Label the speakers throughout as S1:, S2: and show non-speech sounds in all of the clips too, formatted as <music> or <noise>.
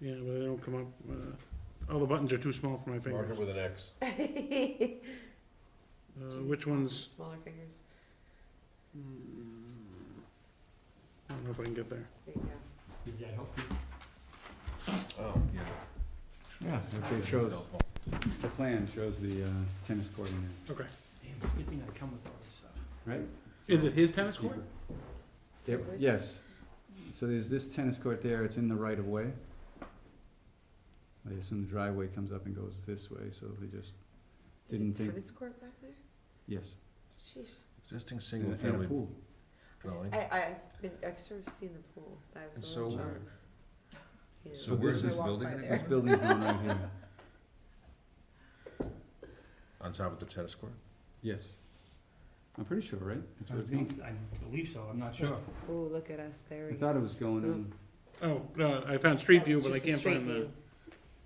S1: Yeah, but they don't come up, uh, all the buttons are too small for my
S2: Mark it
S1: fingers.
S2: with an X.
S3: <laughs>
S1: Uh, which ones?
S3: Smaller fingers,
S1: Mm, I don't know if I can get there.
S3: there you go.
S4: Does that help you?
S2: Oh, yeah.
S5: Yeah, actually it shows, the plan shows the uh, tennis court in
S1: Okay.
S4: Damn, it's a good thing I come with all this stuff.
S5: there, right?
S1: Is it his tennis court?
S5: Keeper. There, yes, so there's this tennis court there, it's in the right of way. I assume the driveway comes up and goes this way, so they just,
S3: Is
S5: Didn't
S3: it
S5: think-
S3: tennis court back there?
S5: yes,
S3: Sheesh.
S2: Existing
S5: and
S2: single
S5: a- and a
S2: family
S5: pool.
S2: dwelling.
S3: I, I, I've been- I've sort of seen the pool, I was a
S2: So-
S3: little jealous. You
S5: So
S3: know,
S5: this
S3: I
S5: is
S3: walked
S2: building
S3: by
S2: again?
S3: there.
S5: This building's one right here,
S2: On top of the tennis court?
S5: yes. I'm pretty sure, right? That's what it's going.
S4: I believe so, I'm not sure.
S3: Oh, look at us, there
S5: I
S3: we go.
S5: thought it was going on,
S1: Oh, no, I found Street
S3: That
S1: View,
S3: was
S1: but I
S3: just the
S1: can't
S3: street
S1: find the,
S3: view.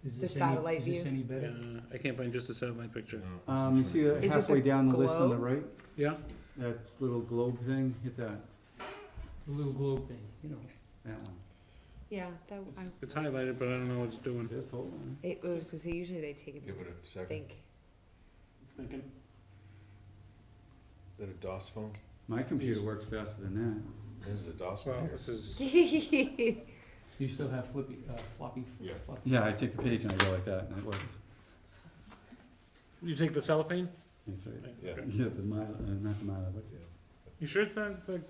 S4: Is
S3: The
S4: this any,
S3: satellite
S4: is this
S3: view.
S4: any
S1: uh,
S4: better?
S1: I can't find just the satellite picture.
S5: um, you see that
S3: Is it
S5: halfway
S3: the
S5: down the list on the
S3: globe?
S5: right?
S1: Yeah.
S5: That little globe thing, hit that,
S4: The little globe thing, you know.
S5: that one.
S3: Yeah, that, I,
S1: It's highlighted, but I don't know what it's doing.
S5: This whole one.
S3: it was, cause usually they take it,
S2: Give it
S3: because
S2: a
S3: I
S2: second.
S3: think,
S2: Is that a DOS phone?
S5: My computer works faster than that.
S2: This is a DOS
S1: Well,
S2: phone here.
S1: this is,
S4: You still have flippy, uh, floppy?
S2: Yeah.
S4: floppy-
S5: Yeah, I take the page and I go like that, and it works.
S1: you take the cellophane?
S5: That's right.
S2: Yeah.
S1: Okay.
S5: Yeah, the mile, uh, not the mile, what's it?
S1: You sure it's not the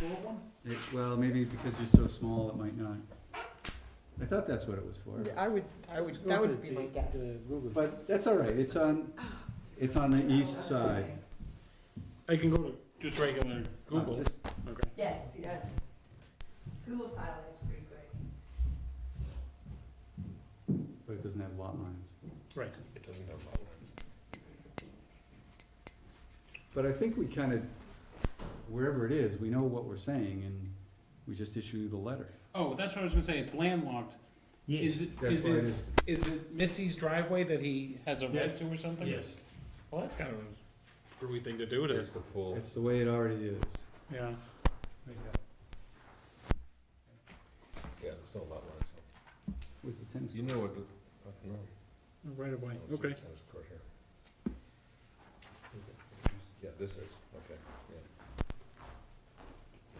S1: gold one?
S5: it? Well, maybe because you're so small, it might not. I thought that's what it was for.
S6: I would, I would, that would be my guess.
S5: But that's all right, it's on, it's on the east side.
S1: I can go to just regular
S5: Uh,
S1: Google.
S5: just-
S1: Okay.
S3: Yes, yes. Google satellite's pretty great.
S5: But it doesn't have lot lines.
S1: Right.
S2: It doesn't have lot lines.
S5: But I think we kind of, wherever it is, we know what we're saying, and we just issue the letter.
S1: Oh, that's what I was gonna say, it's landlocked. Is,
S4: Yes,
S1: it-
S5: That's
S1: is
S5: what it
S1: it,
S5: is.
S1: is it Missy's driveway that he has a right
S4: Yes.
S1: to or something?
S4: yes.
S1: Well, that's kind of a screwy thing to do to,
S2: There's the pool.
S5: It's the way it already is.
S1: yeah.
S2: Yeah, there's no lot lines.
S5: Where's the tennis
S2: You
S5: court?
S2: know what, I don't know.
S1: Right away,
S2: I don't see a
S1: okay.
S2: tennis court here. Yeah, this is, okay, yeah.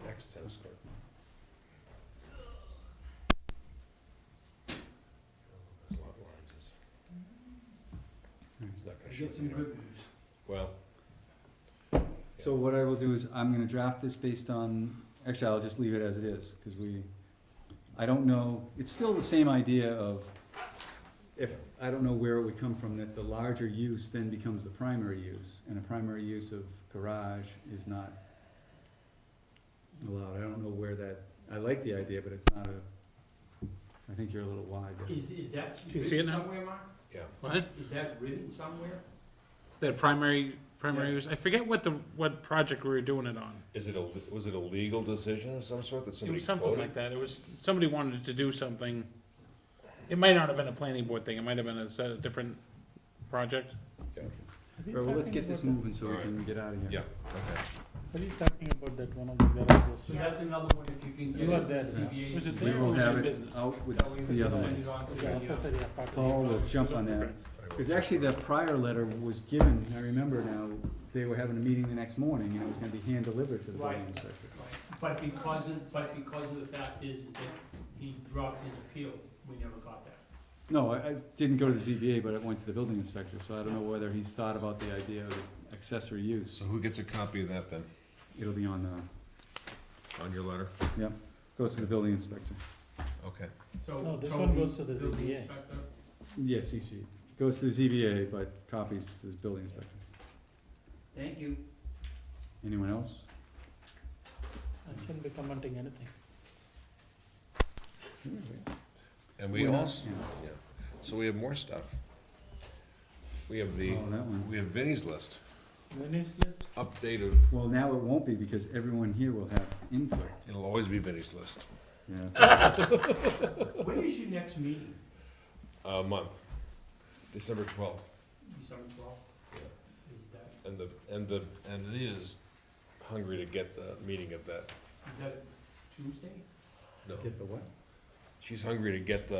S2: Next tennis court. There's lot lines, it's,
S3: Mm-hmm.
S2: it's not
S4: I
S2: gonna show
S4: get some
S2: you.
S4: good news.
S2: Well,
S5: So what I will do is, I'm gonna draft this based on, actually, I'll just leave it as it is, cause we, I don't know, it's still the same idea of, if, I don't know where it would come from, that the larger use then becomes the primary use, and a primary use of garage is not allowed, I don't know where that, I like the idea, but it's not a, I think you're a little wide there.
S4: Is, is that
S1: you see it
S4: written
S1: now?
S4: somewhere, Mark?
S2: yeah,
S1: What?
S4: Is that written somewhere?
S1: That primary, primary
S4: Yeah.
S1: use, I forget what the, what project we were doing it on.
S2: is it a, was it a legal decision of some sort that
S1: It
S2: somebody
S1: was something
S2: quoted?
S1: like that, it was, somebody wanted to do something. It might not have been a planning board thing, it might have been a, set- a different project.
S5: All right, well, let's get this moving so we can get out of here.
S2: Yeah, okay.
S1: What are you talking about that one of the garages?
S4: So that's another one if you can get.
S1: You have
S4: it to
S1: that.
S4: CBA.
S1: Was it
S5: We
S1: there?
S5: will
S1: Yeah,
S5: have
S1: business.
S5: it out
S4: That way we
S5: with
S4: can
S5: the other
S4: send
S5: ones.
S4: it on to the, uh,
S5: Paul will jump on that.
S2: I will
S5: Because
S2: check
S5: actually,
S2: on
S5: the prior letter was given, I remember now, they were having a meeting the next morning, and it was gonna be hand-delivered to the building
S4: Right.
S5: inspector.
S4: But because of, but because of the fact is that he dropped his appeal, we never got that.
S5: No, I, I didn't go to the ZBA, but it went to the building inspector, so I don't know whether he's thought about the idea of accessory
S2: it.
S5: use.
S2: So who gets a copy of that then,
S5: It'll be on, uh,
S2: on your letter?
S5: goes to the building inspector.
S2: Okay.
S4: So.
S1: No, this
S4: Toby,
S1: one goes to the
S4: building
S1: ZBA.
S4: inspector,
S5: Yeah, CC. Goes to the ZBA, but copies to the building inspector.
S4: Thank you.
S5: Anyone else?
S1: I shouldn't be commenting anything.
S2: And we
S5: We're not-
S2: also,
S5: yeah.
S2: so we have more stuff. We have the,
S5: Oh, that one.
S2: we have Vinnie's list,
S1: Vinny's list?
S2: updated,
S5: Well, now it won't be, because everyone here will have input,
S2: it'll always be Vinnie's list,
S5: yeah.
S4: When is your next meeting?
S2: a month, December twelfth.
S4: December twelfth?
S2: Yeah.
S4: Is that,
S2: And the, and the, and Anita's hungry to get the meeting of that,
S4: is that Tuesday?
S2: no,
S5: Get the what?
S2: she's hungry to get the